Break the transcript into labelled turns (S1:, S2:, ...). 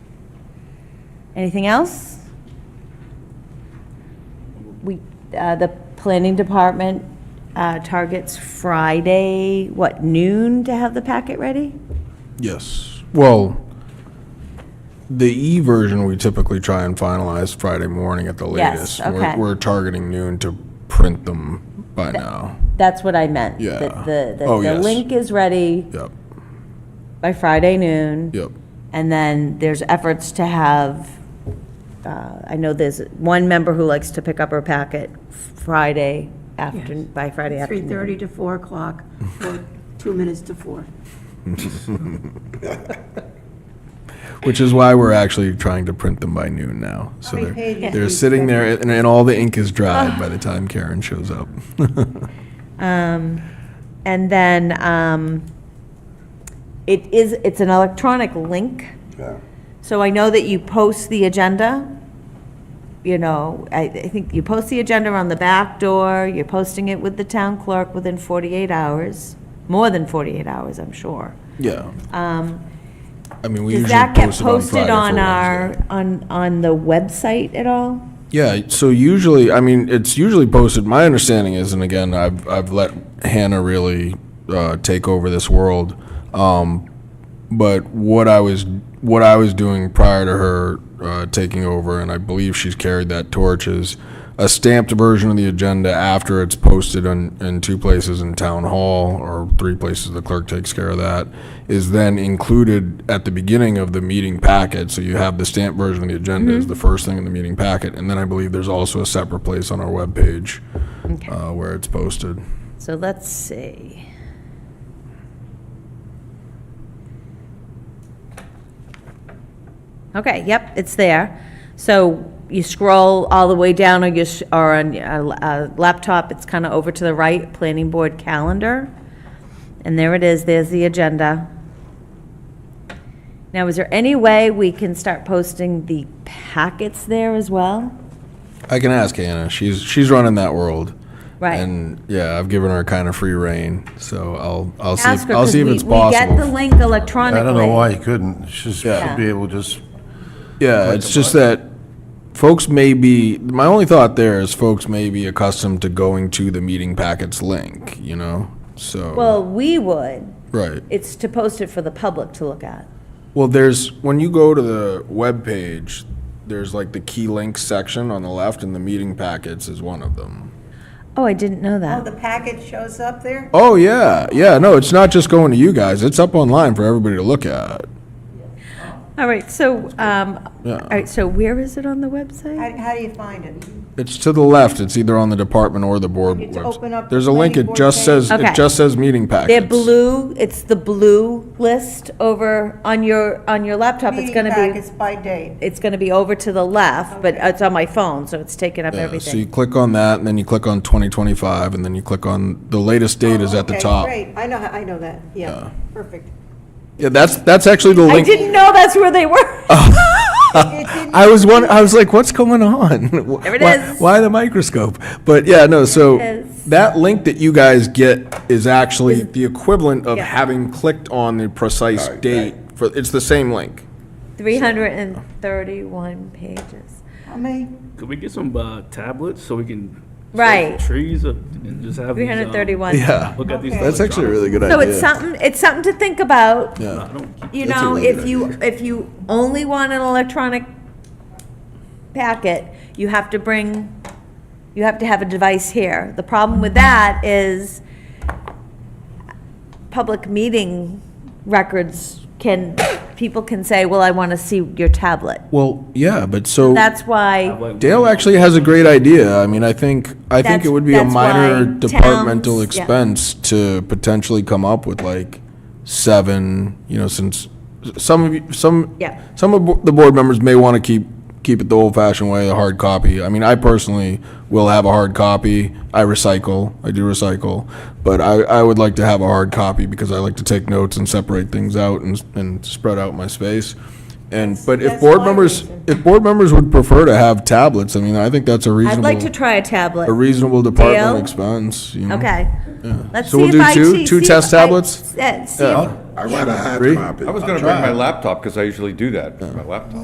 S1: Anything else? We, uh, the planning department uh, targets Friday, what, noon to have the packet ready?
S2: Yes. Well, the E version, we typically try and finalize Friday morning at the
S1: Yes,
S2: latest. We're-
S1: okay.
S2: We're targeting noon to print them by now.
S1: That's what I meant.
S2: Yeah.
S1: that The, the,
S2: Oh,
S1: the
S2: yes.
S1: link is ready
S2: Yep,
S1: by Friday noon.
S2: yep.
S1: And then there's efforts to have, uh, I know there's one member who likes to pick up her packet Friday afternoon, by Friday afternoon.
S3: 3:30 to 4 o'clock, or two minutes to 4.
S2: Which is why we're actually trying to print them by noon now. So they're,
S3: pages
S2: they're sitting there and, and all the ink is dried by the time Karen shows up.
S1: And then um, it is, it's an electronic link.
S4: Yeah.
S1: So I know that you post the agenda. You know, I, I think you post the agenda on the back door, you're posting it with the town clerk within 48 hours, more than 48 hours, I'm sure.
S2: Yeah. Um. I mean, we
S1: Does
S2: usually
S1: that get
S2: post it on
S1: posted
S2: Friday
S1: on
S2: for
S1: our,
S2: Wednesday.
S1: on, on the website at all?
S2: Yeah, so usually, I mean, it's usually posted, my understanding is, and again, I've, I've let Hannah really uh, take over this world. Um, but what I was, what I was doing prior to her uh, taking over, and I believe she's carried that torch, is a stamped version of the agenda after it's posted in, in two places in town hall or three places, the clerk takes care of that, is then included at the beginning of the meeting packet. So you have the stamped version of the agenda is the first thing in the meeting packet. And then I believe there's also a separate place on our webpage uh, where it's posted.
S1: So let's see. Okay, yep, it's there. So you scroll all the way down on your, s- or on a laptop, it's kind of over to the right, Planning Board Calendar. And there it is, there's the agenda. Now, is there any way we can start posting the packets there as well?
S2: I can ask Hannah. She's she's running that world.
S1: Right.
S2: And yeah, I've given her kind of free reign, so I'll I'll see
S1: Ask
S2: if,
S1: her,
S2: I'll
S1: 'cause
S2: see if
S1: we-
S2: it's possible.
S1: We get the link electronically.
S4: I don't know why he couldn't. She
S2: Yeah.
S4: should be able to just,
S2: yeah, it's just that folks may be my only thought there is folks may be accustomed to going to the meeting packets link, you know. So
S1: Well, we would.
S2: right.
S1: It's to post it for the public to look at.
S2: Well, there's when you go to the web page, there's like the key links section on the left, and the meeting packets is one of them.
S1: Oh, I didn't know
S5: Oh,
S1: that.
S5: the package shows up there?
S2: Oh yeah, yeah. No, it's not just going to you guys. It's up online for everybody to look at.
S1: All right, so, um, all
S2: Yeah.
S1: right, so where is it on the website?
S5: How, how do you find it?
S2: It's to the left. It's either on the department or the board
S5: It's
S2: webs-
S5: open up the
S2: There's a link. It
S5: planning board
S2: just
S5: page.
S2: says,
S1: Okay.
S2: it just says meeting
S1: They're
S2: packets.
S1: blue, it's the blue list over on your, on your laptop. It's
S5: Meeting
S1: gonna be,
S5: packets by date.
S1: it's gonna be over to the left, but it's on my phone, so it's taking up
S2: Yeah, So you
S1: everything.
S2: click on that and then you click on 2025 and then you click on, the latest date is at the
S5: Oh, Okay,
S2: top.
S5: Great, I know, I know that, yeah, perfect.
S2: Yeah, that's, that's actually the
S1: I
S2: link.
S1: didn't know that's where they were.
S2: I was one. I was like, "What's going on? There
S1: it
S2: why,
S1: is.
S2: why the microscope?" But yeah, no. So
S1: it is.
S2: that link that you guys get is actually the equivalent of having clicked on the precise date. For it's the same link.
S1: Three hundred and thirty-one pages.
S5: I mean.
S6: Could we get some uh, tablets so we can set
S1: Right.
S6: trees up and just have
S1: Three
S6: these,
S1: hundred and
S6: um,
S1: thirty-one.
S6: Look at these.
S2: that's actually a really good idea.
S1: So it's something, it's something to think about.
S2: Yeah.
S1: You
S2: That's a
S1: know,
S2: really
S1: if
S2: good
S1: you, if you only want an electronic packet, you have to bring, you have to have a device here. The problem with that is public meeting records can, people can say, well, I want to see your tablet.
S2: Well, yeah, but so
S1: That's why,
S6: Like,
S2: Dale actually has a great idea. I mean, I think, I think
S1: That's-
S2: it would be a
S1: that's
S2: minor
S1: why
S2: departmental
S1: towns- yeah.
S2: expense to potentially come up with like seven, you know, since some of you, some,
S1: Yeah.
S2: some of bo- the board members may want to keep, keep it the old fashioned way, the hard copy. I mean, I personally will have a hard copy. I recycle, I do recycle, but I, I would like to have a hard copy because I like to take notes and separate things out and, and spread out my space. And, but if
S5: that's
S2: board
S5: my
S2: members,
S5: reason.
S2: if board members would prefer to have tablets, I mean, I think that's a
S1: I'd like to
S2: reasonable,
S1: try a tablet.
S2: a reasonable department
S1: Dale?
S2: expense, you know?
S1: Okay. Let's
S2: So we'll
S1: see
S2: do
S1: if I
S2: two-
S1: see-
S2: two
S1: see
S2: test
S1: if I-
S2: tablets?
S1: Yeah, see if
S4: I want a hard
S2: Three?
S4: copy.
S7: I was gonna bring my laptop, because I usually do that, my laptop.